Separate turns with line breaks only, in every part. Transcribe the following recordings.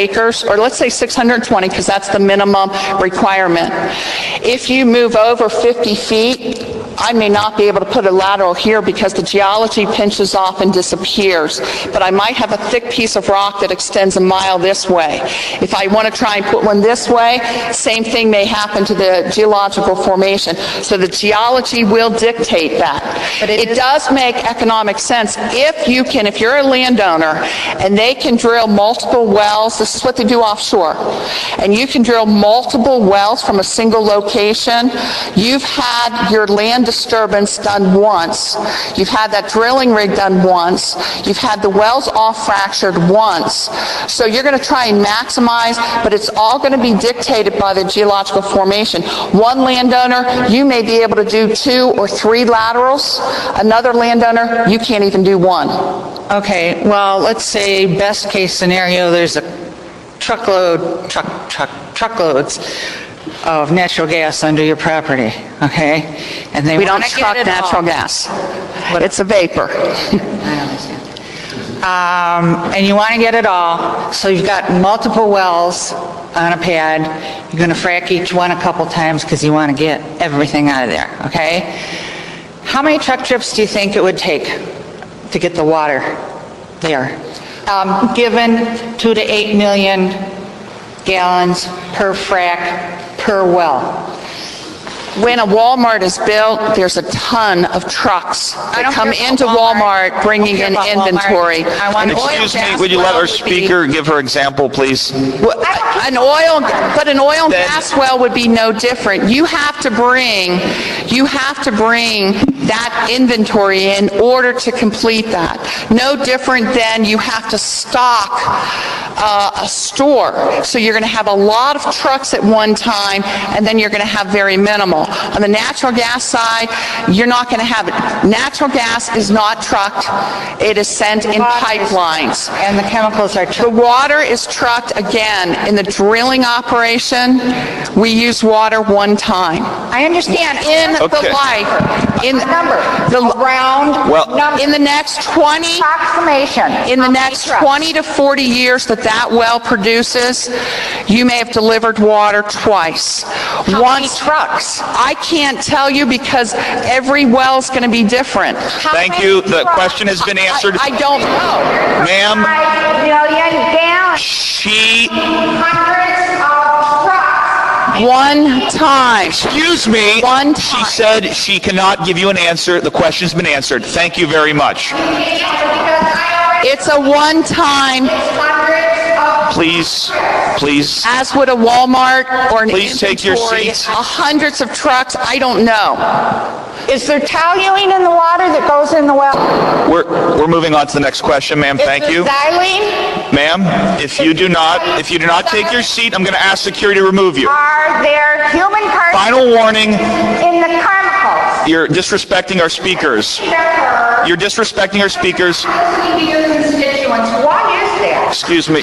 acres, or let's say 620, because that's the minimum requirement. If you move over 50 feet, I may not be able to put a lateral here because the geology pinches off and disappears, but I might have a thick piece of rock that extends a mile this way. If I want to try and put one this way, same thing may happen to the geological formation. So the geology will dictate that. But it does make economic sense if you can, if you're a landowner and they can drill multiple wells, this is what they do offshore, and you can drill multiple wells from a single location, you've had your land disturbance done once, you've had that drilling rig done once, you've had the wells all fractured once. So you're going to try and maximize, but it's all going to be dictated by the geological formation. One landowner, you may be able to do two or three laterals. Another landowner, you can't even do one.
Okay, well, let's say best case scenario, there's a truckload, truck, truck, truckloads of natural gas under your property, okay? And they
We don't
want to
truck
get it all.
natural gas. It's a vapor.
I understand. Um, And you want to get it all, so you've got multiple wells on a pad, you're going to frack each one a couple times because you want to get everything out of there, okay? How many truck trips do you think it would take to get the water there? Um, Given 2 to 8 million gallons per frack, per well.
When a Walmart is built, there's a ton of trucks that
I don't
come
care
into
about Walmart.
Walmart bringing
I don't
in
care about Walmart.
inventory.
I want oil,
Excuse me,
gas,
would you let
well
our
would be-
speaker give her example, please?
Well, An oil, but an oil and
Then-
gas well would be no different. You have to bring, you have to bring that inventory in order to complete that. No different than you have to stock uh, a store. So you're going to have a lot of trucks at one time, and then you're going to have very minimal. On the natural gas side, you're not going to have it. Natural gas is not trucked. It is sent in pipelines.
And the chemicals are
The water is trucked again. In the drilling operation, we use water one time.
I understand.
In the
Okay.
life, in
number,
the,
around
Well-
number,
in the next 20,
approximation.
in the next
trucks?
20 to 40 years that that well produces, you may have delivered water twice. Once
trucks?
I can't tell you because every well's going to be different.
Thank you, the question has been answered.
I I don't know.
Ma'am,
Five million gallons,
she,
hundreds of trucks.
One time.
excuse me,
One
she
time.
said she cannot give you an answer, the question's been answered. Thank you very much.
Because I already
It's a one-time
hundreds of
Please, please,
as would a Walmart or an
Please take your
inventory,
seats.
uh, Hundreds of trucks, I don't know.
Is there toluene in the water that goes in the well?
we're, we're moving on to the next question, ma'am, thank you.
Is there xylene?
Ma'am, if you do not, if you do not take your seat, I'm gonna ask security to remove you.
Are there human parts
Final warning,
in the chemicals?
you're disrespecting our speakers.
You're
You're disrespecting our speakers.
listening to your constituents. What is that?
Excuse me.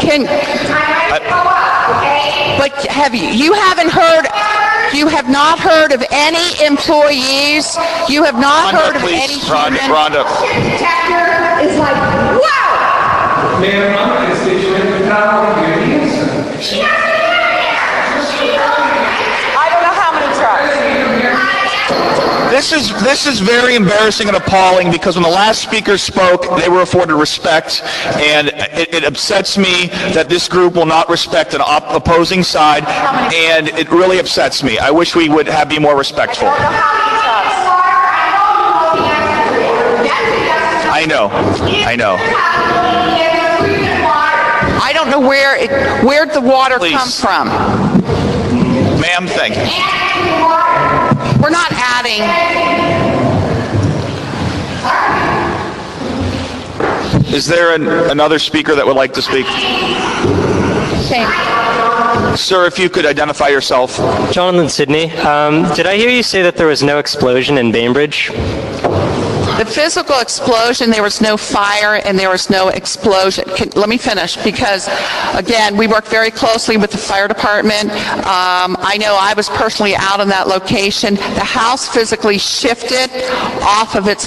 Can,
I might go up, okay?
but have you, you haven't heard, you have not heard of any employees, you have not heard
Rhonda,
of any
please. Rhonda,
human.
Rhonda.
Your detector is like, wow!
Mayor, I'm a constituent, but not only your answer.
She doesn't have it. She don't.
I don't know how many trucks.
This is, this is very embarrassing and appalling because when the last speaker spoke, they were afforded respect, and it, it upsets me that this group will not respect an op- opposing side, and it really upsets me. I wish we would have, be more respectful. I know, I know.
I don't know where it, where'd the water
Please.
come from?
Ma'am, thank you.
We're not adding,
Is there an, another speaker that would like to speak? Sir, if you could identify yourself.
Jonathan Sydney, um, did I hear you say that there was no explosion in Bainbridge?
the physical explosion, there was no fire and there was no explosion. Can, let me finish because, again, we work very closely with the fire department. Um, I know I was personally out on that location. The house physically shifted off of its